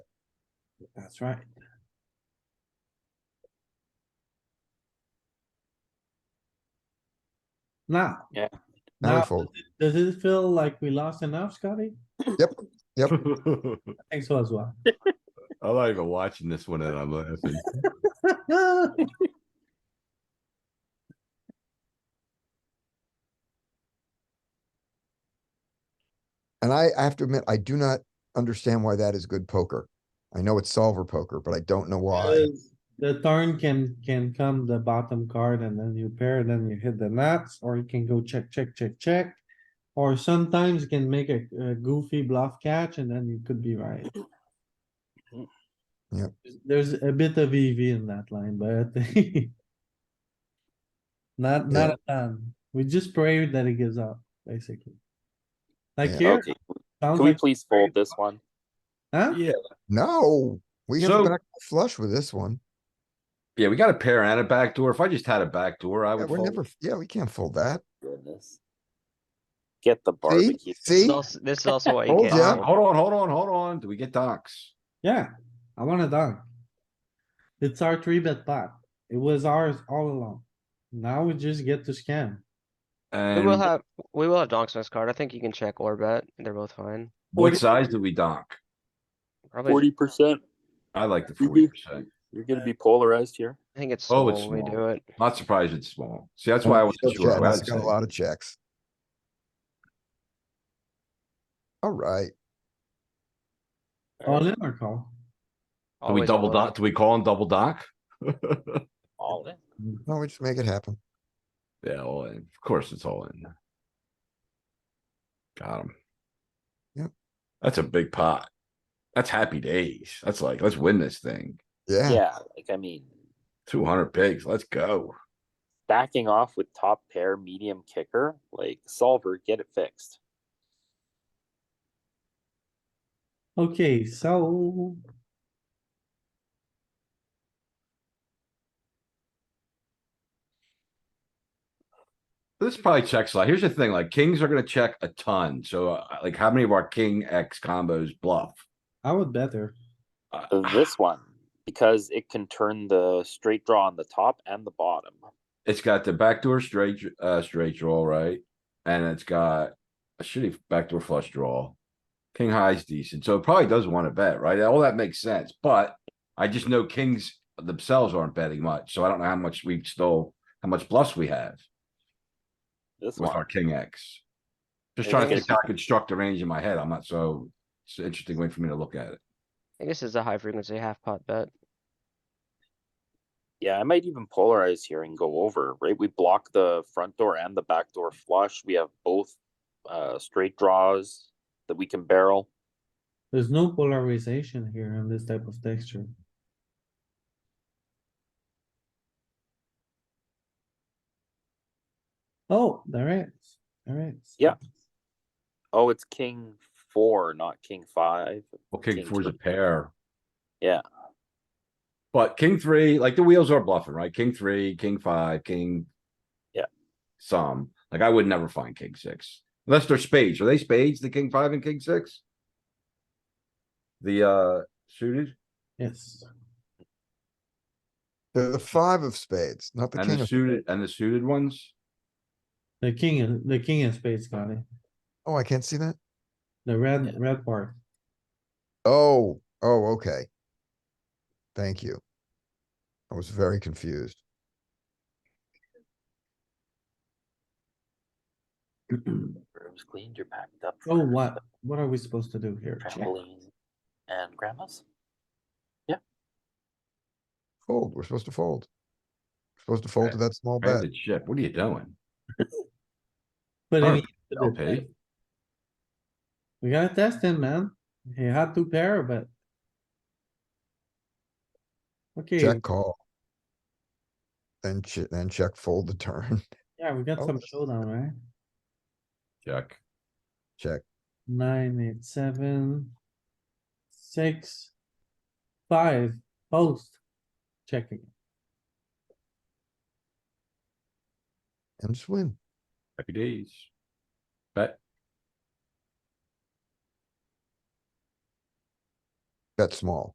That's right. Now. Yeah. Now I Now, fold. does it feel like we lost enough, Scotty? I think so as well. I'm not even watching this one and I'm laughing. And I, I have to admit, I do not understand why that is good poker. I know it's solver poker, but I don't know why. Because The turn can, can come the bottom card and then you pair, then you hit the nuts, or you can go check, check, check, check. Or sometimes you can make a a goofy bluff catch and then you could be right. Yep. There's a bit of EV in that line, but not, not a ton. We just pray that it gives up, basically. Like Yeah. here, Okay, sounds can we like, please fold this one? huh? Yeah, No, we have a So- back flush with this one. yeah, we got a pair and a backdoor. If I just had a backdoor, I Yeah, would We're fold. never, yeah, we can't fold that. Goodness. Get the See, barbecue. see, This is also- this is also why you Hold can't. yeah. fold. Um, Hold on, hold on, hold on. Do we get docs? Yeah, I want it done. It's our three bet pot. It was ours all along. Now we just get to scam. We will And have, we will have donks on this card. I think you can check or bet. They're both fine. what size do we dock? Probably, Forty percent, I like the Mhm. forty percent. you're gonna be polarized here. I think it's Oh, small it's when we small. do it. Not surprised it's small. See, that's Oh, why I wasn't Still sure. check. I It's would got a say- lot of checks. Alright, All in or call? Do we Always double all in. dock? Do we call him double dock? All in. no, we just make it happen. Yeah, all in. Of course, it's all in. Got him. Yep. That's a big pot. That's happy days. That's like, let's win this thing. Yeah, Yeah, like, I mean, Two hundred pigs, let's go. backing off with top pair, medium kicker, like solver, get it fixed. Okay, so. This probably checks a lot. Here's the thing, like kings are gonna check a ton. So uh, like how many of our king X combos bluff? I would bet her. Uh, This one, because it can turn the straight draw on the top and the bottom. It's got the backdoor straight, dr- uh, straight draw, right? And it's got a shitty backdoor flush draw. King high's decent, so it probably does wanna bet, right? All that makes sense, but I just know kings themselves aren't betting much, so I don't know how much we still, how much bluffs we have This with one, our king X. Just It's trying to gonna- think how I could struct the range in my head. I'm not so, it's an interesting way for me to look at it. I think this is a high frequency half pot bet. yeah, I might even polarize here and go over, right? We block the front door and the back door flush. We have both uh straight draws that we can barrel. There's no polarization here on this type of texture. Oh, there is, there is. Yeah. Oh, it's king four, not king five. Well, king King four's a three. pair. Yeah. But king three, like the wheels are bluffing, right? King three, king five, king. Yeah. Some, like I would never find king six, unless they're spades. Are they spades, the king five and king six? The, uh, suited Yes, the, the five of spades, not the and king the of, suited and the suited ones? the king, the king of spades, Scotty, oh, I can't see that? the red, red part. Oh, oh, okay. Thank you. I was very confused. Rooms cleaned, you're packed up. Oh, for what, what are we supposed to do here? Check. Trampoline and grandma's. Fold, we're supposed to fold. Supposed to fold to that small bet. Branded ship, what are you doing? But Turn, any- LP. We gotta test him, man. He had two pair, but. Okay, Check call. Then che- then check fold the turn, yeah, we got Oh. some showdown, right? Check. check. Nine, eight, seven. Six. Five, post. Checking. And just win. Happy days. Bet. Bet small.